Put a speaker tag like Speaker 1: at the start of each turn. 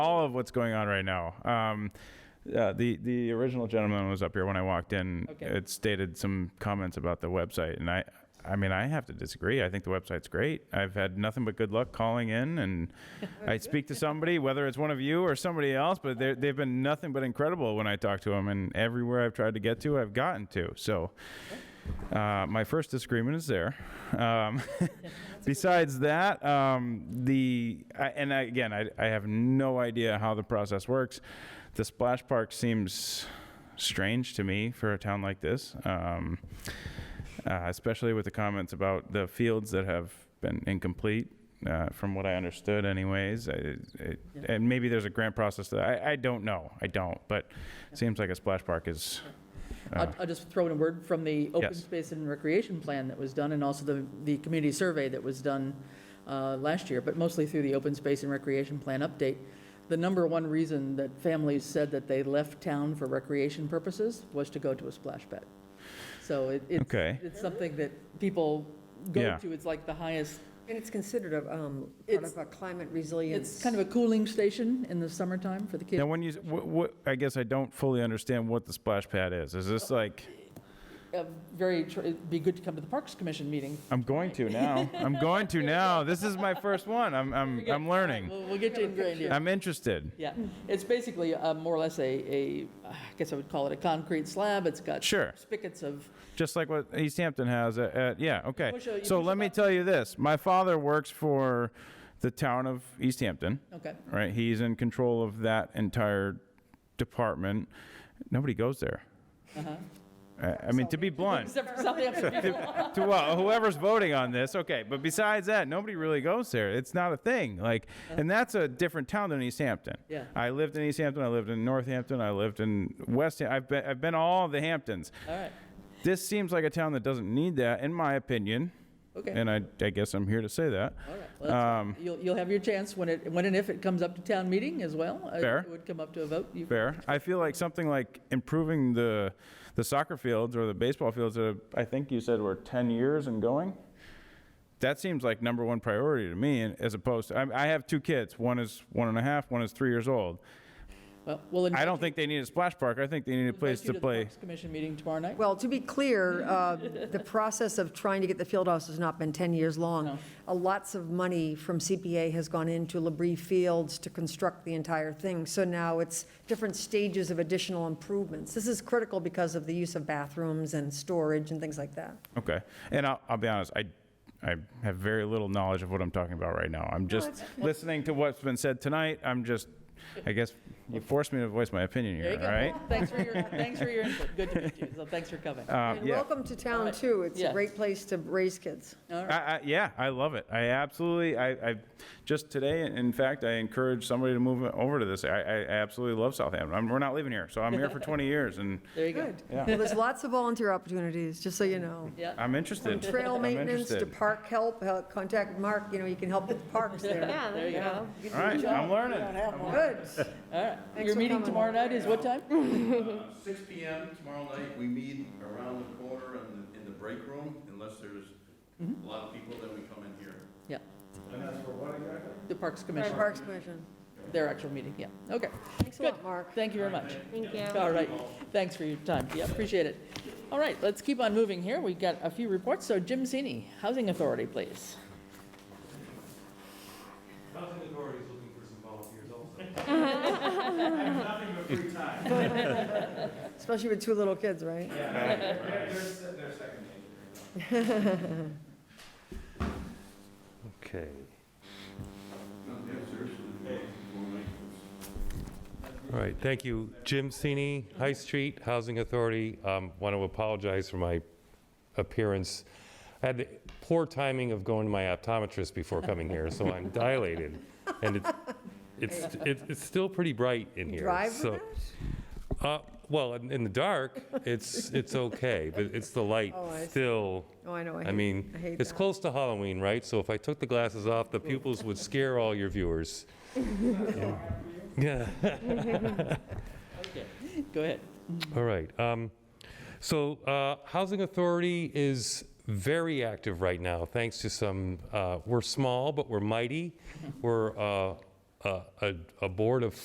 Speaker 1: all of what's going on right now. Um, uh, the the original gentleman was up here when I walked in.
Speaker 2: Okay.
Speaker 1: It stated some comments about the website, and I I mean I have to disagree. I think the website's great. I've had nothing but good luck calling in, and I speak to somebody, whether it's one of you or somebody else, but they're- they've been nothing but incredible when I talk to them, and everywhere I've tried to get to, I've gotten to. So. Uh, my first disagreement is there. Um, besides that, um, the I, and I, again, I, I have no idea how the process works. The splash park seems strange to me for a town like this, um, uh, especially with the comments about the fields that have been incomplete. Uh, from what I understood, anyways, I, it, and maybe there's a grant process that I, I don't know. I don't, but it seems like a splash park is.
Speaker 2: I'll, I'll just throw in a word from the open
Speaker 1: Uh. Yes.
Speaker 2: space and recreation plan that was done, and also the, the community survey that was done uh, last year, but mostly through the open space and recreation plan update. The number one reason that families said that they left town for recreation purposes was to go to a splash pad. So it, it's,
Speaker 1: Okay.
Speaker 2: it's something that people go
Speaker 1: Yeah.
Speaker 2: to, it's like the highest,
Speaker 3: And it's considered a, um, part
Speaker 2: It's-
Speaker 3: of a climate resilience.
Speaker 2: it's kind of a cooling station in the summertime for the kids.
Speaker 1: Now, when you, what, what, I guess I don't fully understand what the splash pad is. Is this like,
Speaker 2: Uh, Very, tr- it'd be good to come to the Parks Commission meeting.
Speaker 1: I'm going to now. I'm going to now. This is my first one. I'm, I'm, I'm learning.
Speaker 2: We'll, we'll get you ingrained here.
Speaker 1: I'm interested.
Speaker 2: Yeah,
Speaker 3: Mm.
Speaker 2: it's basically uh, more or less a, a, I guess I would call it a concrete slab. It's got
Speaker 1: Sure.
Speaker 2: spigots of,
Speaker 1: Just like what East Hampton has at, at yeah, okay.
Speaker 2: Push a- you
Speaker 1: So
Speaker 2: push a
Speaker 1: let me tell you this. My father works for the town of East Hampton,
Speaker 2: okay,
Speaker 1: right? He's in control of that entire department. Nobody goes there.
Speaker 2: Uh-huh.
Speaker 1: I, I mean, to be blunt,
Speaker 2: except for Southampton.
Speaker 1: to well, whoever's voting on this, okay. But besides that, nobody really goes there. It's not a thing. Like, and that's a different town than East Hampton.
Speaker 2: Yeah.
Speaker 1: I lived in East Hampton. I lived in Northampton. I lived in West. Ham- I've been. I've been all the Hamptons.
Speaker 2: All right,
Speaker 1: This seems like a town that doesn't need that, in my opinion.
Speaker 2: okay.
Speaker 1: And I, I guess I'm here to say that.
Speaker 2: All right, well, that's-
Speaker 1: um,
Speaker 2: You'll, you'll have your chance when it, when and if it comes up to town meeting as well. Uh,
Speaker 1: Fair.
Speaker 2: It would come up to a vote. You-
Speaker 1: Fair. I feel like something like improving the the soccer fields or the baseball fields that I think you said were 10 years and going. That seems like number one priority to me, and- as opposed to I, I have two kids. One is one and a half. One is three years old.
Speaker 2: Well, we'll
Speaker 1: I
Speaker 2: invite
Speaker 1: don't think they need a splash park. I think they need a
Speaker 2: you-
Speaker 1: place
Speaker 2: invite you
Speaker 1: to play.
Speaker 2: the Parks Commission meeting tomorrow night.
Speaker 3: Well, to be clear, uh, the process of trying to get the field house has not been 10 years long. Uh, Lots of money from CPA has gone into Labrie Fields to construct the entire thing. So now it's different stages of additional improvements. This is critical because of the use of bathrooms and storage and things like that.
Speaker 1: Okay. And I'll, I'll be honest. I I have very little knowledge of what I'm talking about right now. I'm just listening to what's been said tonight. I'm just. I guess you forced me to voice my opinion
Speaker 2: There
Speaker 1: here,
Speaker 2: you go.
Speaker 1: all right?
Speaker 2: Thanks for your, thanks for your input. Good to meet you. So thanks for coming. All
Speaker 1: Um,
Speaker 3: And
Speaker 1: yeah.
Speaker 3: welcome to town, too. It's
Speaker 2: Yeah.
Speaker 3: a great place to raise kids.
Speaker 2: right,
Speaker 1: I, I, yeah, I love it. I absolutely, I, I just today, in fact, I encourage somebody to move over to this. I, I I absolutely love Southampton. I'm, we're not leaving here, so I'm here for 20 years, and
Speaker 2: there you go.
Speaker 3: Good.
Speaker 1: Yeah.
Speaker 3: Well, there's lots of volunteer opportunities, just so you know.
Speaker 2: Yeah,
Speaker 1: I'm interested.
Speaker 3: Trail
Speaker 1: I'm
Speaker 3: maintenance to
Speaker 1: interested.
Speaker 3: park help, uh, contact Mark, you know, you can help with the parks there.
Speaker 2: there you go.
Speaker 1: All right, I'm learning.
Speaker 3: Good.
Speaker 2: All right.
Speaker 3: Thanks
Speaker 2: Your
Speaker 3: for
Speaker 2: meeting
Speaker 3: coming.
Speaker 2: tomorrow night is what time?
Speaker 4: Uh, 6 PM tomorrow night, we meet around the corner in the, in the break room, unless there's a lot of people, then we come in here.
Speaker 2: Yeah. The Parks Commission,
Speaker 3: Parks Commission.
Speaker 2: their actual meeting, yeah. Okay.
Speaker 3: Thanks a
Speaker 2: Good.
Speaker 3: lot, Mark.
Speaker 2: Thank you very much.
Speaker 5: Thank you.
Speaker 2: All right, thanks for your time. Yeah, appreciate it. All right, let's keep on moving here. We've got a few reports. So Jim Sini, Housing Authority, please.
Speaker 6: Housing Authority is looking for some volunteers also. I have nothing but free time.
Speaker 3: Especially with two little kids, right?
Speaker 6: They're- they're se- they're second nature.
Speaker 7: Okay. All right, thank you. Jim Sini, High Street Housing Authority. Um, Want to apologize for my appearance. I had the poor timing of going to my optometrist before coming here, so I'm dilated. And it's, it's, it's- it's still pretty bright in here.
Speaker 3: Drive with
Speaker 7: so- Uh, Well, in in the dark, it's, it's okay, but it's the light
Speaker 3: Oh, I see.
Speaker 7: still.
Speaker 3: Oh, I know, I
Speaker 7: I
Speaker 3: hate-
Speaker 7: mean,
Speaker 3: I hate
Speaker 7: it's
Speaker 3: that.
Speaker 7: close to Halloween, right? So if I took the glasses off, the pupils would scare all your viewers. Yeah.
Speaker 2: Okay, Go ahead.
Speaker 7: All right. um, So uh, Housing Authority is very active right now, thanks to some, uh, we're small, but we're mighty. We're uh, a, a, a board of